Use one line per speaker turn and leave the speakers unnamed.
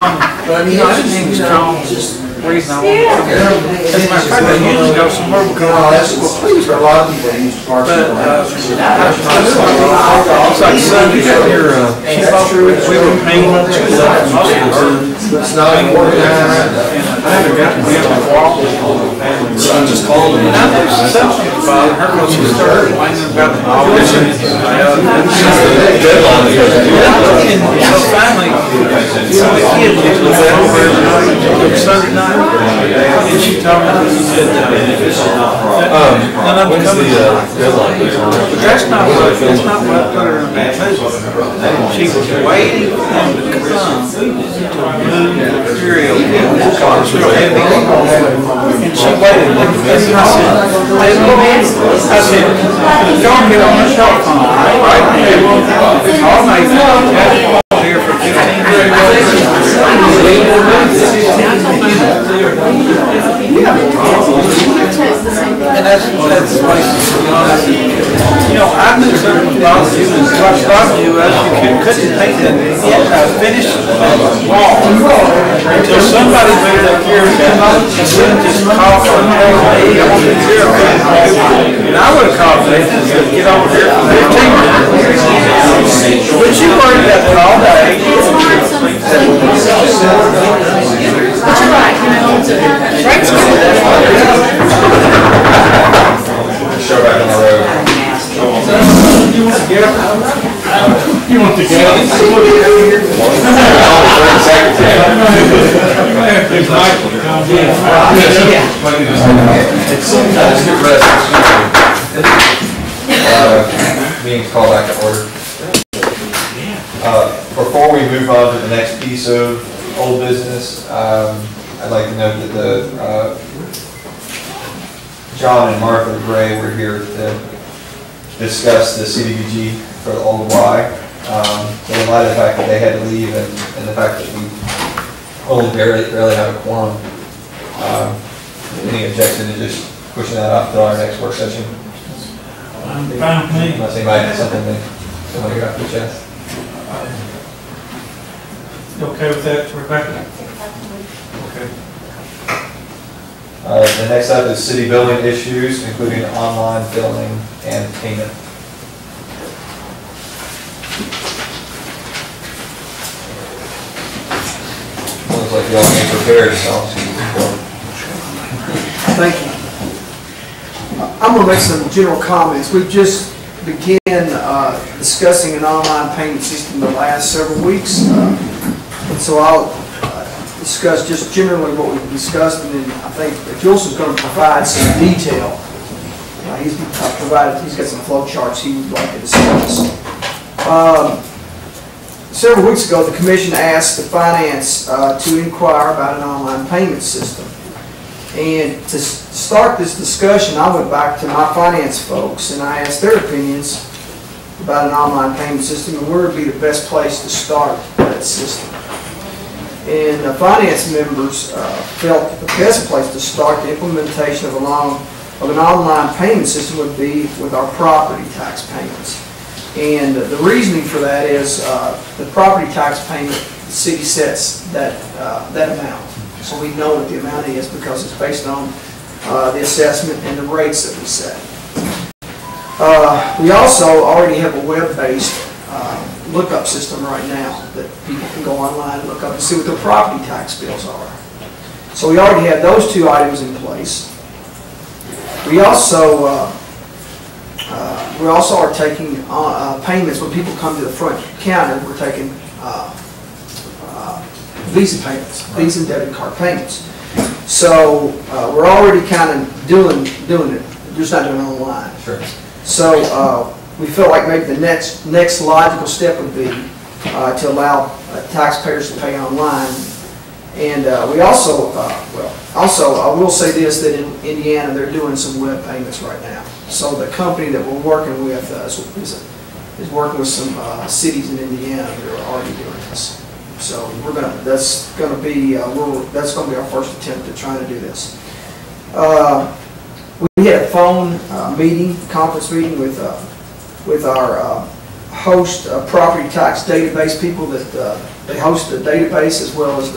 But I mean,
No,
it's
I didn't think it was John.
just, you know,
Reason I wanted to
just-
As a matter of fact, I usually go somewhere
No,
because I
that's what,
was
uh, please, a lot of people that use cars.
But, uh,
It's
like, son, you got your, uh, we were painting two levels of muscles.
It's not an organized.
I haven't gotten to have a walk with
So I just called them.
And I think she's something about her when she started whining about the tuition. And So finally, you know, the kid just was over and Sunday night, and she told me, she said, uh, that- that I'm coming. But that's not what, that's not what put her in a bad mood. She was waiting for him to come to move the material. It was real heavy. And she waited, and I said, "Hey, look," I said, don't get on the cell phone, all right? It's all my fault, I've been here for fifteen years. And that's, that's why, you know, I said, you know, I knew something about you, and what bothered you, as you could- couldn't take that, I finished the wall until somebody made that gear, and said, just call for an LA, I want to hear it. And I would've called Nathan, and said, get over here for fifteen minutes. But you worried about it all day.
Show back on the road. Sometimes get rest, excuse me. Uh, Meeting's called back to order. Uh, Before we move on to the next piece of old business, um, I'd like to note that the, uh, John and Martha Gray were here to discuss the CDBG for the old Y. Um, so In light of the fact that they had to leave and and the fact that we only barely, barely have a quorum, um, any objection to just pushing that off till our next work session? Unless anybody has something that they want to get off their chest.
Okay with that, Rebecca? Okay.
Uh, The next up is city billing issues, including online billing and payment. Looks like y'all ain't prepared, so.
Thank you. I'm gonna make some general comments. We just began uh, discussing an online payment system the last several weeks. uh, And so I'll uh, discuss just generally what we've discussed, and then I think Juleson's gonna provide some detail. Uh, He's uh, provided, he's got some flow charts he would like to discuss. Um, Several weeks ago, the commission asked the finance uh, to inquire about an online payment system. And to s- start this discussion, I went back to my finance folks and I asked their opinions about an online payment system and where would be the best place to start that system. And the finance members uh, felt that the best place to start the implementation of a long, of an online payment system would be with our property tax payments. And the reasoning for that is uh, the property tax payment, the city sets that, uh, that amount. So we know what the amount is because it's based on uh, the assessment and the rates that we set. Uh, We also already have a web-based uh, lookup system right now that people can go online, and look up and see what their property tax bills are. So we already have those two items in place. We also, uh, uh, we also are taking uh, uh, payments when people come to the front counter, we're taking uh, uh, Visa payments, Visa and debit card payments. So uh, we're already kind of doing, doing it, just not doing it online.
Sure.
So uh, we felt like maybe the next, next logical step would be uh, to allow uh, taxpayers to pay online. And uh, we also, uh, well, also, I will say this, that in Indiana, they're doing some web payments right now. So the company that we're working with uh, is, is- is working with some uh, cities in Indiana that are already doing this. So we're gonna, that's gonna be, uh, we're, that's gonna be our first attempt at trying to do this. Uh, we had a phone uh, meeting, conference meeting with, uh, with our uh, host uh, property tax database people that, uh, they host the database as well as the